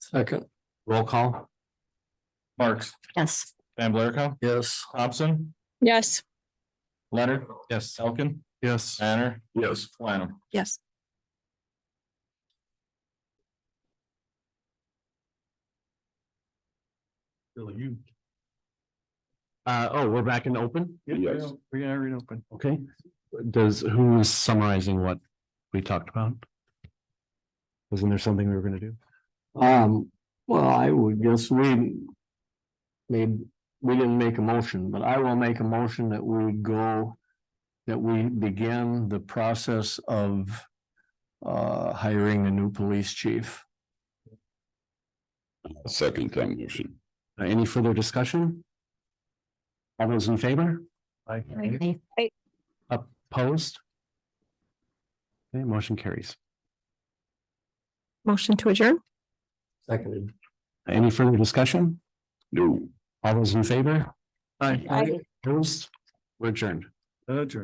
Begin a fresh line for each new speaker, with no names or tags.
Second.
Roll call.
Marks,
Yes.
Van Blarco,
Yes.
Thompson,
yes,
Leonard,
Yes.
Elkin,
Yes.
Banner,
Yes.
Lanham.
Yes.
You. Uh, oh, we're back in open?
Yes.
We are in open. Okay, does, who is summarizing what we talked about? Wasn't there something we were gonna do?
Um, well, I would guess we. Made, we didn't make a motion, but I will make a motion that we go. That we begin the process of. Uh, hiring a new police chief.
Second time motion.
Uh, Any further discussion? All those in favor? Aye.
Aye.
Opposed? Okay, motion carries.
motion to adjourn.
Seconded.
Any further discussion?
No.
All those in favor?
Aye.
Opposed? We're adjourned.
Adjourn.